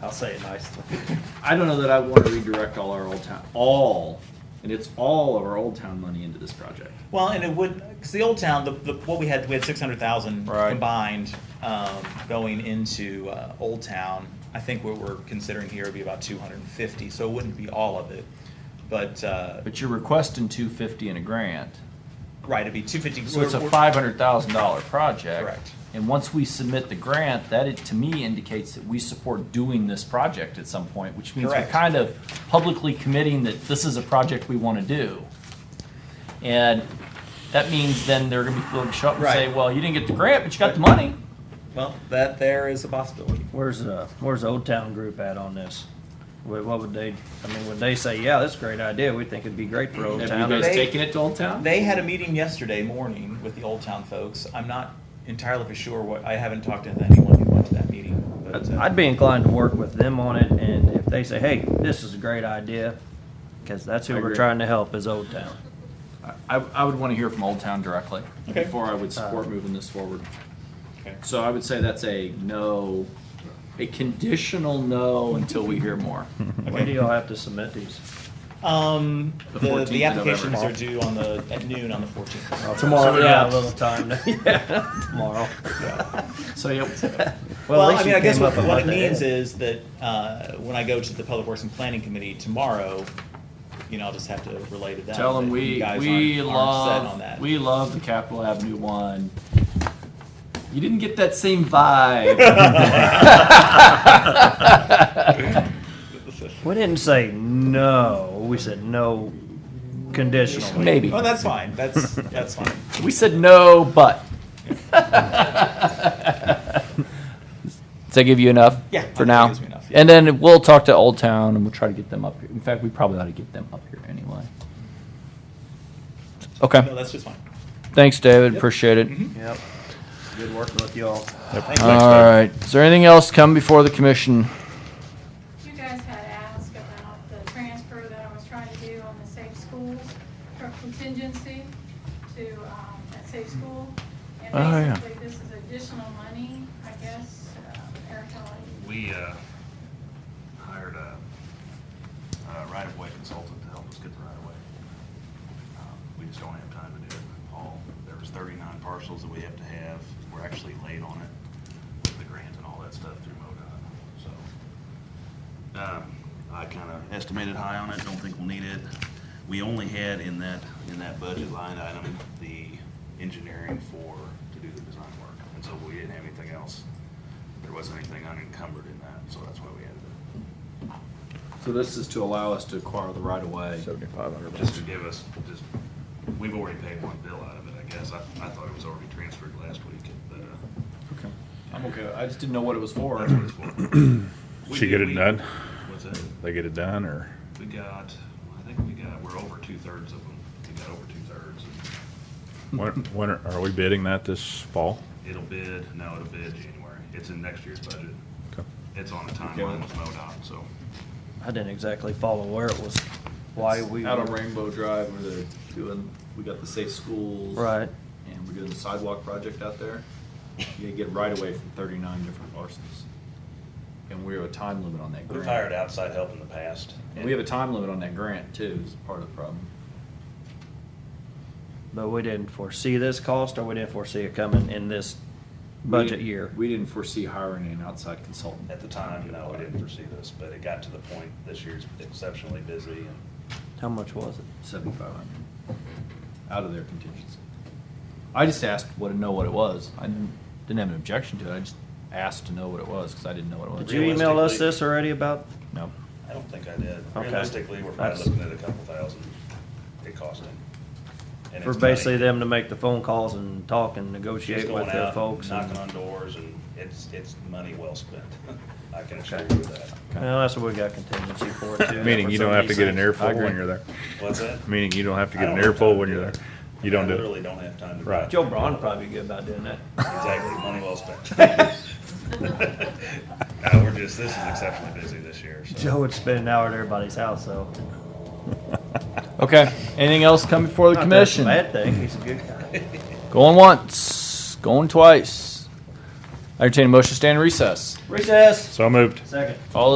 I'll say it nicely. I don't know that I want to redirect all our old town, all, and it's all of our old town money into this project. Well, and it would, because the old town, the, the, what we had, we had six hundred thousand Right. combined, um, going into, uh, Old Town. I think what we're considering here would be about two hundred and fifty, so it wouldn't be all of it, but, uh, But you're requesting two fifty in a grant, right, it'd be two fifty. so it's a five hundred thousand dollar project. Correct. And once we submit the grant, that it, to me indicates that we support doing this project at some point, which means we're Correct. kind of publicly committing that this is a project we want to do. And that means then they're gonna be willing to show up and say, Right. well, you didn't get the grant, but you got the money. Well, that there is a possibility. Where's uh where's the Old Town Group at on this? What, what would they? I mean, would they say, yeah, that's a great idea. We think it'd be great for Old Have Town. you guys They- taken it to Old Town? They had a meeting yesterday morning with the Old Town folks. I'm not entirely for sure what, I haven't talked to anyone who went to that meeting. but, uh, I'd be inclined to work with them on it, and if they say, hey, this is a great idea, because that's who I we're agree. trying to help is Old Town. I, I would want to hear from Old Town directly. Okay. Before I would support Uh, moving this forward. Okay. So I would say that's a no, a conditional no until we hear more. When do y'all have to submit these? Um, The the, 14th the of applications November. are due on the, at noon on the fourteenth. Tomorrow, we yeah, got a little time. to- yeah, tomorrow. So, yeah, Well, Well, at least I mean, you I guess came what, up a what it month ahead. means is that, uh, when I go to the Public Works and Planning Committee tomorrow, you know, I'll just have to relay to them. Tell them that you we, guys we aren't- aren't set on love, that. we love the Capitol Avenue one. You didn't get that same vibe. We didn't say no. We said no conditionally. Maybe. Oh, that's fine. That's, that's fine. We said no, but. Does that give you enough? Yeah, I For think now? that gives me enough, yeah. And then we'll talk to Old Town and we'll try to get them up here. In fact, we probably ought to get them up here anyway. No, Okay, that's just fine. thanks, David, appreciate it. Mm-hmm. Yep. Good working with y'all. Thank you. All right, is there anything else come before the commission? You guys had asked about the transfer that I was trying to do on the safe schools from contingency to, um, that safe school. And Mm-hmm. Oh, yeah. basically, this is additional money, I guess, uh, Eric, I'll let you- We uh, hired a a right-of-way consultant to help us get the right-of-way. Um, We just don't have time to do it, Paul. There was 39 parcels that we have to have. We're actually late on it with the grant and all that stuff through MoDOT, so. um, I kind of estimated high on it, don't think we'll need it. We only had in that, in that budget line item, the engineering for, to do the design work. And so we didn't have anything else. There wasn't anything unencumbered in that, so that's why we added it. so this is to allow us to acquire the right of way. Seventy-five hundred Just to give us, just, we've already paid one bill out of it, I guess. I, I thought it was already transferred last week, but, uh, Okay. I'm okay. I just didn't know what it was for. that's what it's for. We She get did- it we- done? What's that? They get it done, or? We got, I think we got, we're over two-thirds of them. We got over two-thirds. When, when are, are we bidding that this fall? It'll bid, no, it'll bid January. It's in next year's budget. Okay. It's on a timeline with MoDOT, so. I didn't exactly follow where it was, why we. out on were- Rainbow Drive where they're doing. We got the safe schools. Right. And we're doing the sidewalk project out there. You get right away from 39 different parcels. And we have a time limit on that grant. We've hired outside help in the past. And we have a time limit on that grant too. Is part of the problem. But we didn't foresee this cost, or we didn't foresee it coming in this We budget didn't- year. We didn't foresee hiring an outside consultant At the time, no, we didn't foresee this, but it got to the point, this year's exceptionally busy and How much was it? 7,500 out of their contingency. I just asked what to know what it was. I didn't, didn't have an objection to it. I just asked to know what it was because I didn't know what it was. Did you email us Realistically- this already about? No. I don't think I did. Okay. Realistically, we're probably That's- looking at a couple thousand it costing. And For it's basically money. them to make the phone calls and talk and Just negotiate going with the out, folks. and- Knocking on doors and it's, it's money well spent. I can assure you that. Well, that's what we got contingency for too. Meaning you don't have to get an airfoil agree. when you're there. What's that? Meaning you don't have to I get an don't have time airfoil to when do you're there. it. You don't I do it. literally don't have time to. Right. Joe Braun would probably be good about doing that. Exactly, money well spent. No, we're just, this is exceptionally busy this year, so. Joe would spend an hour at everybody's house, though. Okay. Anything else come before the Not that it's a commission? Bad thing, he's a good guy. Going once, going twice. I entertain a motion to stand in recess. Recess. So moved. Second. All